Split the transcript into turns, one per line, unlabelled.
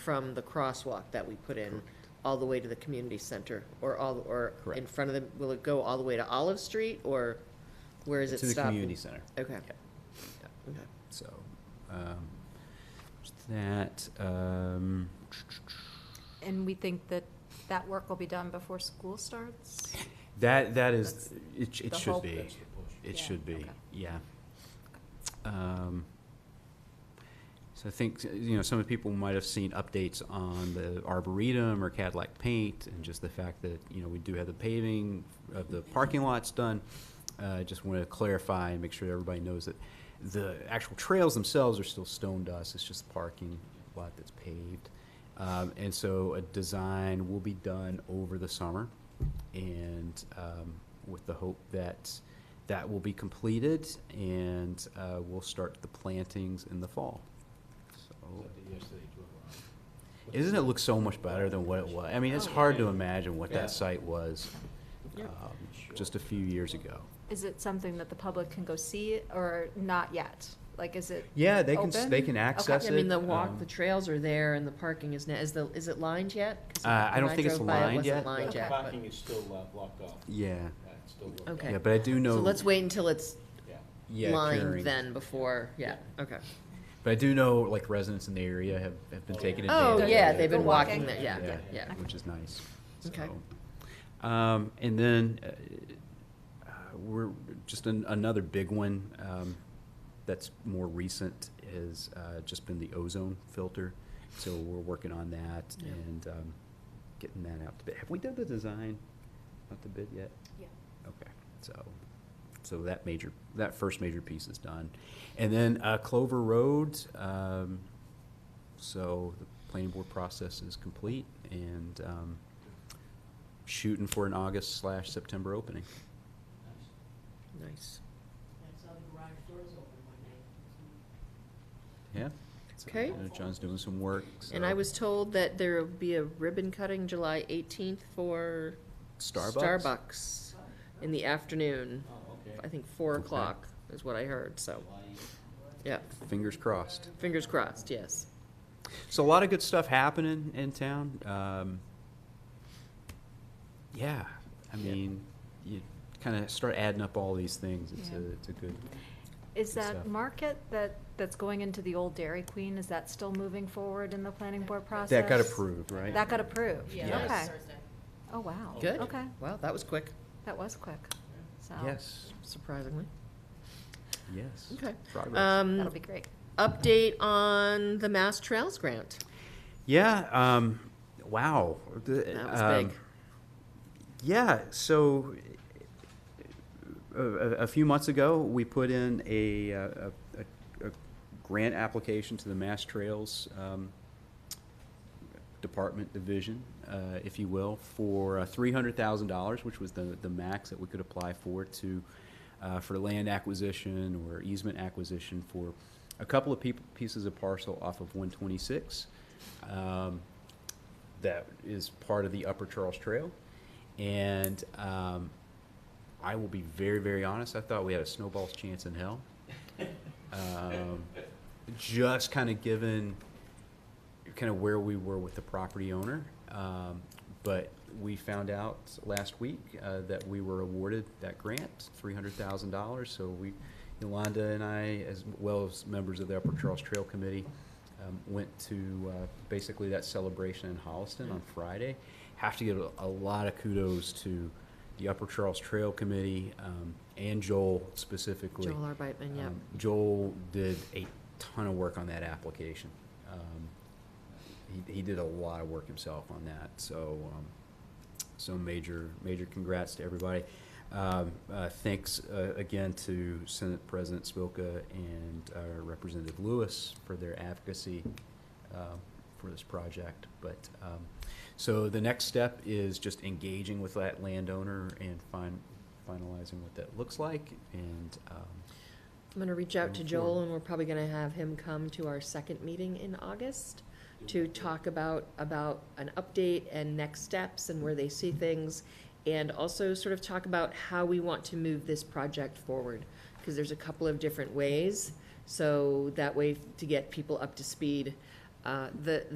from the crosswalk that we put in all the way to the community center or all, or in
Correct.
front of the, will it go all the way to Olive Street or where is it
To the
stop?
community center.
Okay.
Yeah.
Okay.
So, um, just that, um,
And we think that that work will be done before school starts?
that, that is,
That's
it, sh- it
the
should
hope.
be.
That's
It
Yeah,
should be,
okay.
yeah. Um, So I think, you know, some of the people might have seen updates on the Arboretum or Cadillac Paint and just the fact that, you know, we do have the paving of the parking lots done. Uh, just want to clarify and make sure everybody knows that the actual trails themselves are still stone dust. It's just the parking lot that's paved. Um, and so a design will be done over the summer and, um, with the hope that that will be completed and, uh, we'll start the plantings in the fall. So, isn't it look so much better than what it was? I mean, it's
Oh,
hard to imagine what
Yeah.
that site was
Yep.
um, just a few years ago.
Is it something that the public can go see or not yet? Like, is it?
Yeah, they can s-
open?
they can
Okay.
access
I
That's
mean,
it,
the walk,
um,
the trails are there and the parking is, now. is the, is it lined yet? 'Cause
Uh, I
when
don't think it's
drove by, it
lined
wasn't
yet.
lined
Okay.
yet, but-
Parking is still uh, blocked off.
Yeah,
Uh, it's still blocked
Okay.
yeah, but I do know.
So let's wait until it's
Yeah.
yeah, curing.
lined then before, yeah, okay.
But I do know like residents in the area have, have been taking advantage.
Oh,
of
yeah,
it.
they've been
Go walking.
walking there, yeah,
Yeah.
yeah.
which is nice.
Okay.
So, Um, and then, uh, uh, we're, just an, another big one, um, that's more recent is, uh, just been the ozone filter. So we're working on that
Yeah.
and, um, getting that out to bid. Have we done the design out to bid yet?
Yeah.
Okay, so, so that major, that first major piece is done. And then uh, Clover Road, um, so the planning board process is complete and um, shooting for an August slash September opening.
Nice.
That's how the garage doors open one night.
Yeah? So,
Okay.
I know John's doing some work, so.
And I was told that there will be a ribbon cutting July eighteenth for
Starbucks?
Starbucks in the afternoon.
Oh, okay.
I think four
Okay.
o'clock is what I heard, so, yeah,
Fingers crossed.
fingers crossed, yes.
So a lot of good stuff happening in town. Um, yeah, I
Yeah.
mean, you kind of start adding up all these things. It's
Yeah.
a, it's a good.
Is
good
that
stuff.
market that, that's going into the old Dairy Queen, is that still moving forward in the planning board process?
That got approved, right?
That got approved?
Yeah, that was
Okay.
Thursday.
Oh, wow.
Good.
Okay,
Wow, that was quick,
that was quick, so.
Yes,
surprisingly.
yes.
Okay.
Progress.
Um,
That'll be great.
update on the Mass Trails Grant.
Yeah. Um, wow. um,
That was big.
Yeah. So uh, a, a, a few months ago, we put in a, uh, a, a, a grant application to the Mass Trails um, Department Division, uh, if you will, for uh, $300,000, which was the, the max that we could apply for to, uh, for land acquisition or easement acquisition for a couple of people, pieces of parcel off of 126. Um, that is part of the Upper Charles Trail. And um, I will be very, very honest. I thought we had a snowball's chance in hell. Um, just kind of given kind of where we were with the property owner. Um, but we found out last week uh, that we were awarded that grant, $300,000. So we, Yolanda and I, as well as members of the Upper Charles Trail Committee, um, went to uh, basically that celebration in Holliston on Friday. Have to give a, a lot of kudos to the Upper Charles Trail Committee um, and Joel specifically.
Joel Arbeitman, yep.
Um, Joel did a ton of work on that application. Um, he, he did a lot of work himself on that, so, um, so major, major congrats to everybody. Um, uh, thanks, uh, again to Senate President Spilka and, uh, Representative Lewis for their advocacy, um, for this project, but, um, so the next step is just engaging with that landowner and fin- finalizing what that looks like, and, um,
I'm gonna reach out to
Going
Joel
forward.
and we're probably gonna have him come to our second meeting in August to talk about, about an update and next steps and where they see things. And also sort of talk about how we want to move this project forward, cause there's a couple of different ways. So that way to get people up to speed. Uh, the,